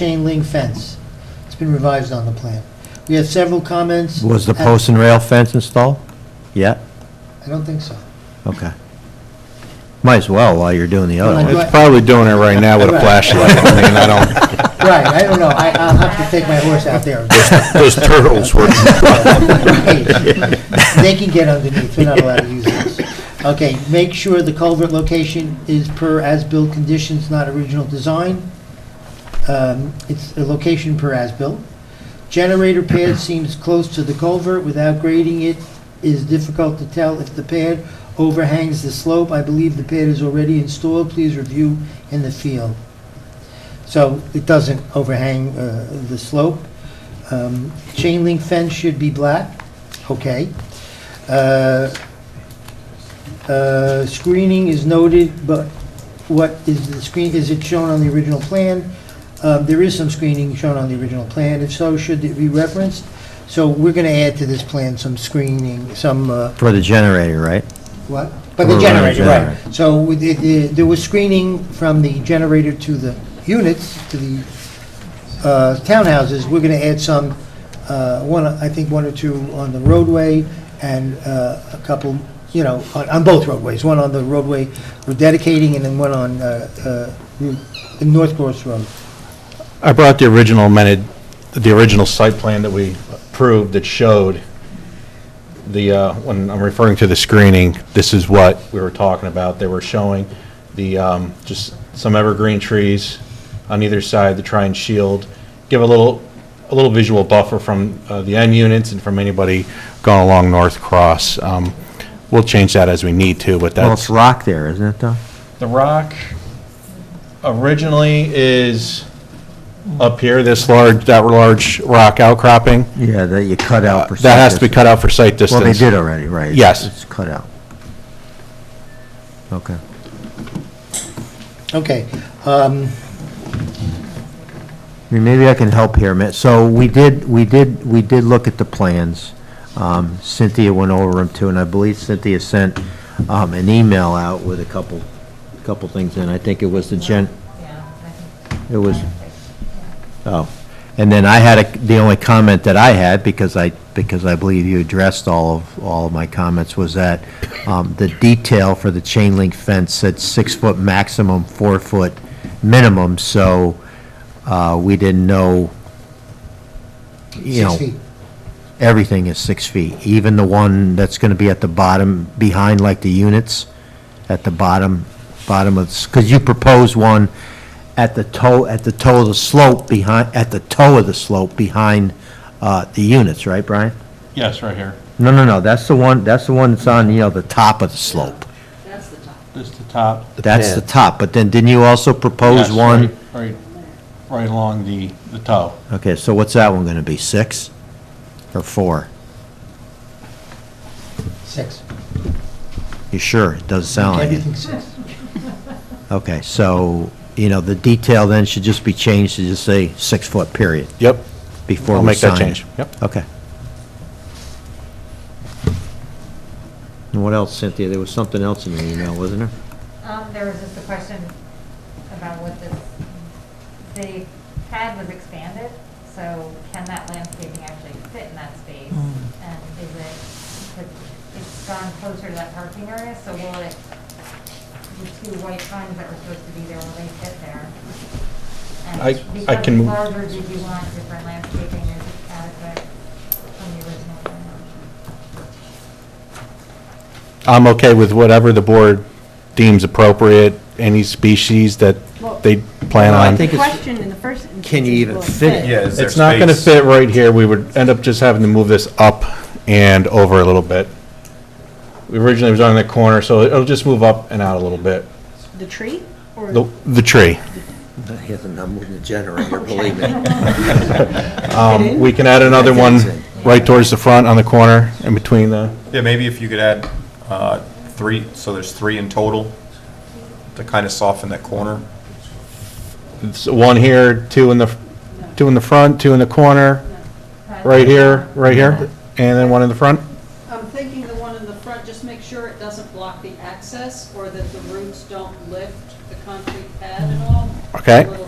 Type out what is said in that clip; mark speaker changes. Speaker 1: chain link fence. It's been revised on the plan. We had several comments.
Speaker 2: Was the
Speaker 1: at-
Speaker 2: post and rail fence installed? Yeah?
Speaker 1: I don't think so.
Speaker 2: Okay. Might as well while you're doing the other
Speaker 1: Well, I
Speaker 2: one.
Speaker 1: Right.
Speaker 3: It's probably doing it right now with a
Speaker 1: Right.
Speaker 3: flashlight. I mean, I don't,
Speaker 1: Right, I don't know. I, I'll have to take my horse out there.
Speaker 3: those turtles were,
Speaker 1: They can get underneath, we're not allowed to use this. Okay, make sure the culvert location is per as-built conditions, not original design. Um, It's a location per as-built. Generator pad seems close to the culvert, without grading it is difficult to tell if the pad overhangs the slope. I believe the pad is already installed, please review in the field. So it doesn't overhang uh, the slope. Um, Chain link fence should be black, okay. Uh, uh, Screening is noted, but what is the screen, is it shown on the original plan? Um, There is some screening shown on the original plan, if so, should it be referenced? So we're going to add to this plan some screening, some, uh,
Speaker 2: For the generator, right?
Speaker 1: what? But the
Speaker 2: Or
Speaker 1: generator,
Speaker 2: generator.
Speaker 1: right. So with the- the- there was screening from the generator to the units, to the uh, townhouses. We're going to add some, uh, one, I think one or two on the roadway and uh, a couple, you know, on- on both roadways. One on the roadway we're dedicating and then one on uh, uh, Route- North Cross Road.
Speaker 3: I brought the original amended, the original site plan that we approved that showed the, uh, when I'm referring to the screening, this is what we were talking about. They were showing the, um, just some evergreen trees on either side to try and shield, give a little, a little visual buffer from uh, the end units and from anybody going along North Cross. Um, We'll change that as we need to, but that's.
Speaker 2: Well, it's rock there, isn't it, though?
Speaker 3: The rock originally is up here, this large, that large rock outcropping.
Speaker 2: Yeah, that you cut out. for
Speaker 3: Uh, That has to be
Speaker 2: sickness.
Speaker 3: cut out for sight distance.
Speaker 2: Well, they did already, right?
Speaker 3: Yes.
Speaker 2: It's cut out. Okay.
Speaker 1: Okay. um,
Speaker 2: I mean, Maybe I can help here, Matt. So we did, we did, we did look at the plans. Um, Cynthia went over them too, and I believe Cynthia sent um, an email out with a couple, couple things in. I think it was the gen,
Speaker 4: Yeah, I think
Speaker 2: it was, oh. And then I had, a- the only comment that I had, because I, because I believe you addressed all of, all of my comments, was that um, the detail for the chain link fence said six-foot maximum, four-foot minimum, so uh, we didn't know, you know
Speaker 1: Six feet.
Speaker 2: everything is six feet, even the one that's gonna be at the bottom, behind like the units, at the bottom, bottom of, because you proposed one at the toe, at the toe of the slope behind, at the toe of the slope behind, uh, the units, right, Brian?
Speaker 3: Yes, right here.
Speaker 2: No, no, no, that's the one, that's the one that's on, you know, the top of the slope.
Speaker 4: That's the top.
Speaker 3: This is the top.
Speaker 2: That's the top, but then didn't you also propose one?
Speaker 3: Right, right along the, the toe.
Speaker 2: Okay, so what's that one gonna be, six or four?
Speaker 1: Six.
Speaker 2: You sure? It doesn't sound like it.
Speaker 1: Everything six.
Speaker 2: Okay, so, you know, the detail then should just be changed to just say six-foot period
Speaker 3: Yep.
Speaker 2: before
Speaker 3: I'll
Speaker 2: we
Speaker 3: make
Speaker 2: sign.
Speaker 3: that change. Yep.
Speaker 2: Okay. And what else, Cynthia? There was something else in your email, wasn't there?
Speaker 4: Um, there was just a question about what this, the pad was expanded, so can that landscaping actually fit in that space?
Speaker 3: Mm.
Speaker 4: And is it, it's gone closer to that parking area, so will it, the two white signs that were supposed to be there, will they fit there? And
Speaker 3: I- I
Speaker 4: because
Speaker 3: can
Speaker 4: it's
Speaker 3: move-
Speaker 4: larger, did you want different landscaping, is it adequate from the original plan?
Speaker 3: I'm okay with whatever the board deems appropriate, any species that they plan
Speaker 2: Well, I
Speaker 3: on.
Speaker 2: think
Speaker 5: The
Speaker 2: it's-
Speaker 5: question in the first instance.
Speaker 2: Can you
Speaker 5: is,
Speaker 2: even
Speaker 5: will
Speaker 2: fit it?
Speaker 6: Yeah, is there
Speaker 3: It's not going to
Speaker 6: space?
Speaker 3: fit right here. We would end up just having to move this up and over a little bit. We Originally, it was on the corner, so it'll just move up and out a little bit.
Speaker 5: The tree or?
Speaker 3: The the tree.
Speaker 2: He hasn't moved the generator, believe me.
Speaker 3: Um, We can add another one right towards the front on the corner in between the,
Speaker 6: Yeah, maybe if you could add uh, three, so there's three in total, to kind of soften that corner.
Speaker 3: it's one here, two in the, two in the front, two in the corner, right here, right here, and then one in the front.
Speaker 7: I'm thinking the one in the front, just make sure it doesn't block the access or that the roots don't lift the concrete pad at all.
Speaker 3: Okay.
Speaker 7: Or